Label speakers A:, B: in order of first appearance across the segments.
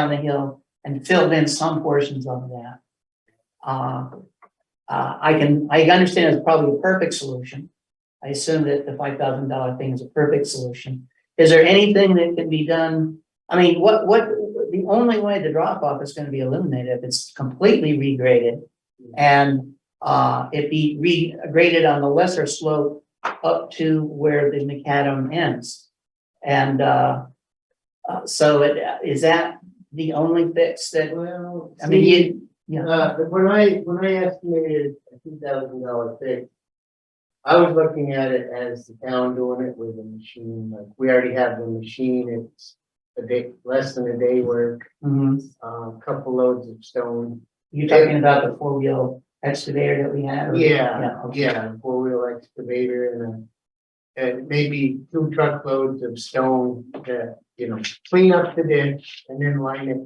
A: down the hill and filled in some portions of that. Uh, uh, I can, I understand it's probably a perfect solution. I assume that the five thousand dollar thing is a perfect solution. Is there anything that can be done? I mean, what, what, the only way the drop off is gonna be eliminated if it's completely regraded. And, uh, it be regraded on the lesser slope up to where the macadam ends. And, uh, uh, so it, is that the only fix that,
B: Well,
A: I mean,
B: see,
A: you, yeah.
B: uh, when I, when I estimated a two thousand dollar fix. I was looking at it as the town doing it with a machine, like, we already have the machine, it's a day, less than a day work,
A: mhm.
B: uh, couple loads of stone.
A: you're talking about the four wheel excavator that we have?
B: Yeah,
A: Yeah, okay.
B: yeah, four wheel excavator and a, and maybe two truckloads of stone to, you know, clean up the ditch and then line it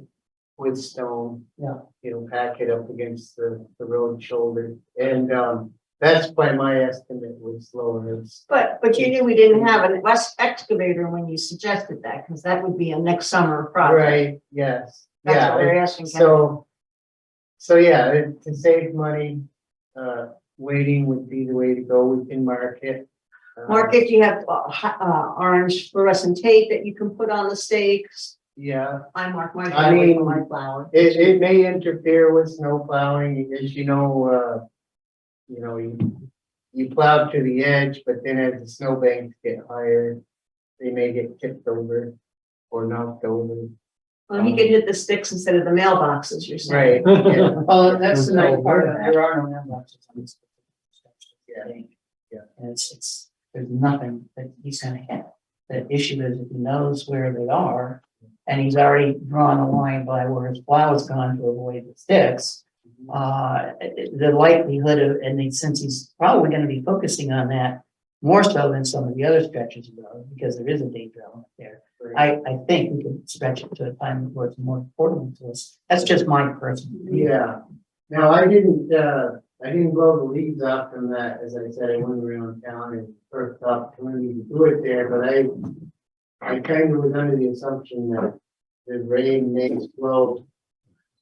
B: with stone.
A: Yeah.
B: You know, pack it up against the, the road shoulder and, um, that's by my estimate was lower. It's-
C: But, but you knew we didn't have an west excavator when you suggested that, because that would be a next summer project.
B: Right, yes,
C: That's
B: yeah.
C: what we're asking. Kevin.
B: So, so yeah, it- to save money, uh, waiting would be the way to go. We can mark it. uh,
C: Market, you have uh, hi- uh, orange fluorescent tape that you can put on the stakes.
B: Yeah.
C: I mark my
B: I
C: driveway with
B: mean-
C: my flower.
B: It, it may interfere with snow plowing, as you know, uh, you know, you, you plow to the edge, but then as the snowbanks get higher, they may get tipped over or knocked over.
C: Well, he
B: Um.
C: could hit the sticks instead of the mailboxes, you're saying.
B: Right, yeah,
A: Well, that's the nice part, of it. there are no mailboxes on this.
B: Yeah. Yeah.
A: And it's, it's, there's nothing that he's gonna hit. The issue is if he knows where they are, and he's already drawn a line by where his plow is gone to avoid the sticks. Uh, the likelihood of, and then since he's probably gonna be focusing on that more so than some of the other stretches of road, because there is a danger element there.
B: right.
A: I, I think we can stretch it to a time where it's more important to us. That's just my personal. view.
B: Yeah, now I didn't, uh, I didn't blow the leaves off from that, as I said, I went around town and first opportunity to do it there, but I. I kind of was under the assumption that the rain may slow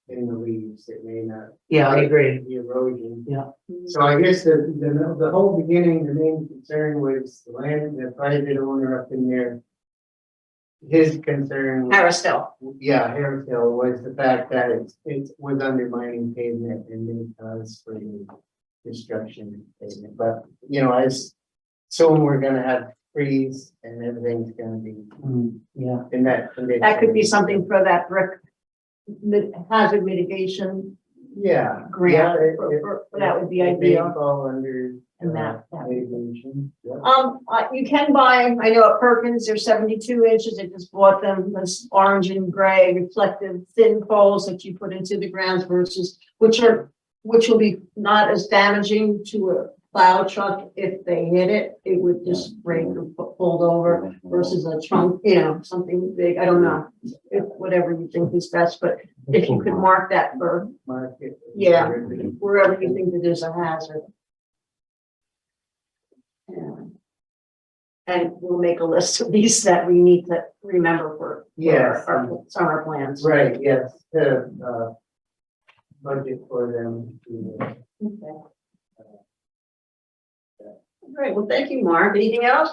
B: in the leaves, it may not
A: Yeah, I agree.
B: the erosion.
A: Yeah.
B: So I guess the, the, the whole beginning, the main concern was the land, the private owner up in there. His concern, was-
C: Harrisdale,
B: yeah, Harris Hill was the fact that it's, it was undermining pavement and then cause for the destruction of pavement, but, you know, I s- soon we're gonna have trees and everything's gonna be
A: Mm, Yeah,
B: in that condition.
C: that could be something for that brick mi- hazard mitigation
B: Yeah.
C: grant.
B: Yeah, it-
C: For-
B: it-
C: for- for That would be
B: it may
C: ideal
B: Fall under.
C: and
B: uh,
C: that, that
B: Mitigation, yeah.
C: Um, uh, you can buy, I know at Perkins, they're seventy-two inches, I just bought them, this orange and gray reflective thin poles that you put into the ground versus, which are, which will be not as damaging to a plow truck if they hit it, it would just break or fo- fold over versus a trunk, you know, something big, I don't know, if, whatever you think is best, but if you could mark that for
B: market.
C: Yeah. wherever you think that there's a hazard. And- And we'll make a list of these that we need to remember for. for
B: Yes.
C: Our our summer plans.
B: Right, yes, the, uh, budget for them. to, uh,
C: Okay. Great, well, thank you, Mark. Anything else?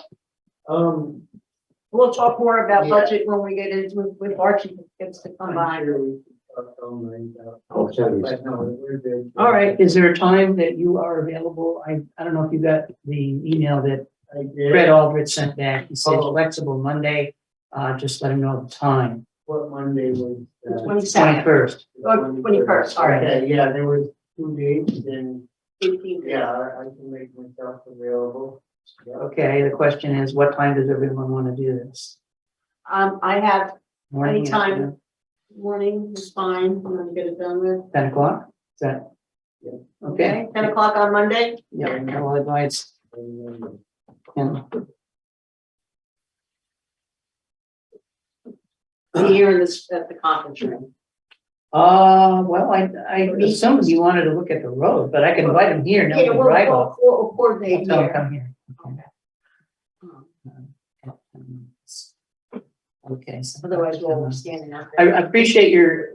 B: Um,
C: We'll talk more about
B: Yeah.
C: budget when we get into, with- with Archie gets to come
B: I'm
C: by.
B: sure we could talk online about.
D: Okay.
B: But no, we're good.
C: All right.
A: is there a time that you are available? I, I don't know if you got the email that
B: I
A: Fred
B: did,
A: Aldrich sent back. He said
B: Oh.
A: flexible Monday, uh, just let him know the time.
B: what Monday was? uh, the
C: Twenty-second,
A: Twenty-first,
C: Oh, 21st, all right.
B: Okay, Yeah, there was two dates and,
C: eighteen.
B: yeah, I I can make myself available. Yeah.
A: okay, the question is, what time does everyone wanna do this?
C: Um, I have
A: Morning,
C: Anytime.
A: afternoon,
C: morning, is fine, I'm gonna get it done with.
A: Ten o'clock, is that?
B: Yeah.
A: Okay,
C: Ten o'clock on Monday?
A: yeah, well, advice,
B: And, um,
A: and
C: Be here in this, at the conference room.
A: Uh, well, I, I assumed you wanted to look at the road, but I can invite him here, now we
C: Yeah,
A: can
C: we'll,
A: drive
C: we'll,
A: off.
C: we'll
A: I'll
C: coordinate
A: tell him,
C: here.
A: come here.
C: Um,
A: Uh, Um, Okay. so-
C: otherwise we'll be standing out there.
A: I I appreciate your